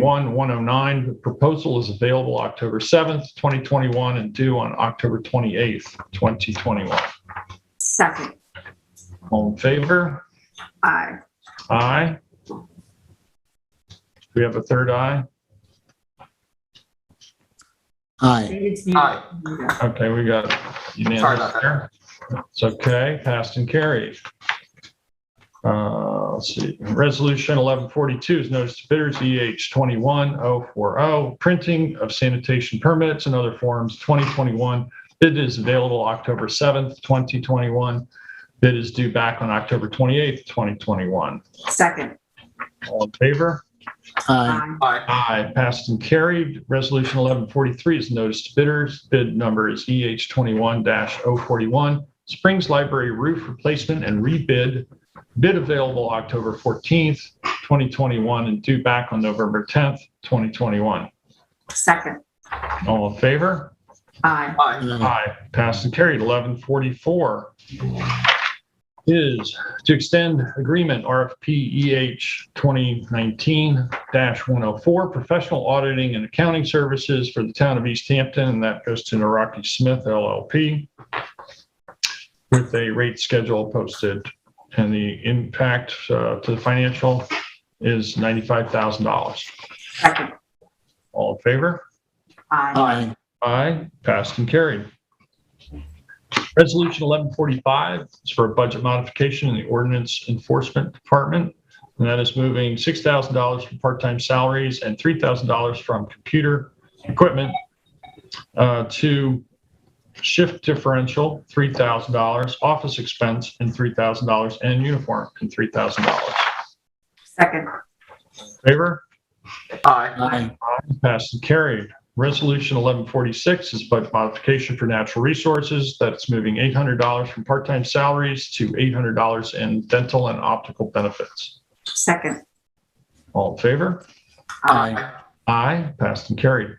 109. The proposal is available October 7th, 2021, and due on October 28th, 2021. Second. All in favor? Aye. Aye. Do we have a third aye? Aye. David's Aye. muted. Okay, we got Sorry unanimous about that. there. It's okay, passed and carried. Uh, Let's see, Resolution 1142 is notice to bidders EH 21040, oh, printing of sanitation permits and other forms, 2021. Bid is available October 7th, 2021. Bid is due back on October 28th, 2021. Second. All in favor? Aye. Aye. Aye. Aye, passed and carried. Resolution 1143 is notice to bidders. Bid number is EH 21-041, Springs Library Roof Replacement and Rebid. Bid available October 14th, 2021, and due back on November 10th, 2021. Second. All in favor? Aye. Aye. Aye. Aye, passed and carried. 1144 is to extend agreement RFP EH 2019-104, professional auditing and accounting services for the town of East Hampton, and that goes to Naraki Smith LLP with a rate schedule posted, and the impact uh, to the financial is $95,000. Second. All in favor? Aye. Aye. Aye, passed and carried. Resolution 1145 is for a budget modification in the ordinance enforcement department. And that is moving $6,000 from part-time salaries and $3,000 from computer equipment uh, to shift differential, $3,000, office expense, and $3,000, and uniform, and $3,000. Second. Favor? Aye. Aye. Passed and carried. Resolution 1146 is budget modification for natural resources. That's moving $800 from part-time salaries to $800 in dental and optical benefits. Second. All in favor? Aye. Aye. Passed and carried.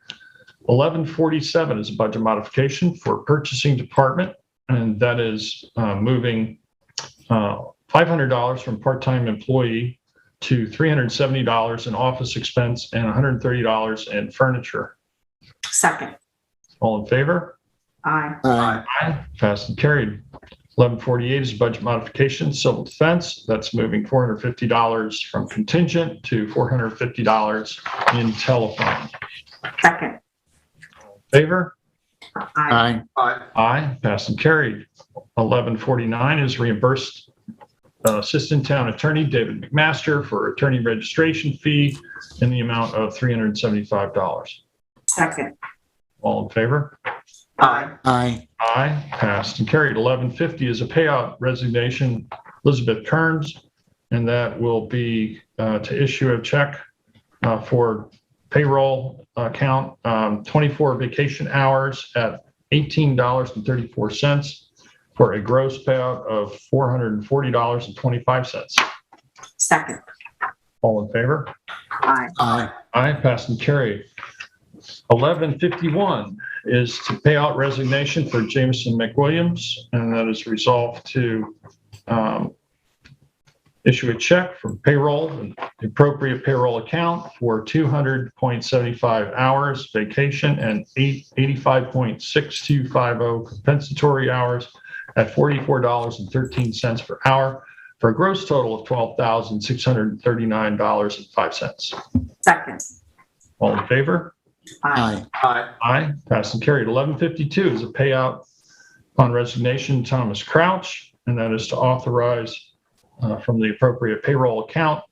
1147 is a budget modification for purchasing department, and that is uh, moving uh, $500 from part-time employee to $370 in office expense and $130 in furniture. Second. All in favor? Aye. Aye. Aye. Passed and carried. 1148 is budget modification, civil defense. That's moving $450 from contingent to $450 in telephone. Second. Favor? Aye. Aye. Aye. Aye. Passed and carried. 1149 is reimbursed uh, Assistant Town Attorney David McMaster for attorney registration fee in the amount of $375. Second. All in favor? Aye. Aye. Aye, passed and carried. 1150 is a payout resignation, Elizabeth Kearns, and that will be uh, to issue a check uh, for payroll account, um, 24 vacation hours at $18.34 for a gross payout of $440.25. Second. All in favor? Aye. Aye. Aye, passed and carried. 1151 is to pay out resignation for Jameson McWilliams, and that is resolved to um, issue a check from payroll, and the appropriate payroll account for 200.75 hours vacation and eight- 85.6250 compensatory hours at $44.13 per hour for a gross total of $12,639.05. Second. All in favor? Aye. Aye. Aye. Aye. Passed and carried. 1152 is a payout upon resignation Thomas Crouch, and that is to authorize uh, from the appropriate payroll account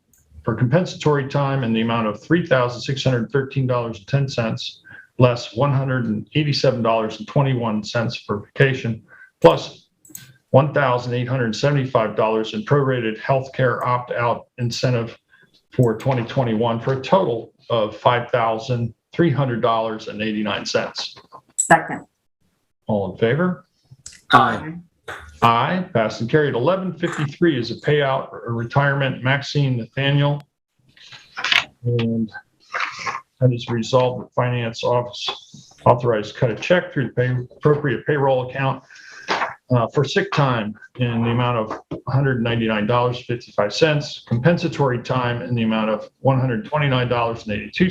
for compensatory time in the amount of $3,613.10 less $187.21 for vacation, plus $1,875 in prorated healthcare opt-out incentive for 2021 for a total of $5,300.89. Second. All in favor? Aye. Aye. Passed and carried. 1153 is a payout or retirement Maxine Nathaniel. And that is resolved that finance office authorized to cut a check through the pay- appropriate payroll account uh, for sick time in the amount of $199.55, compensatory time in the amount of $129.82,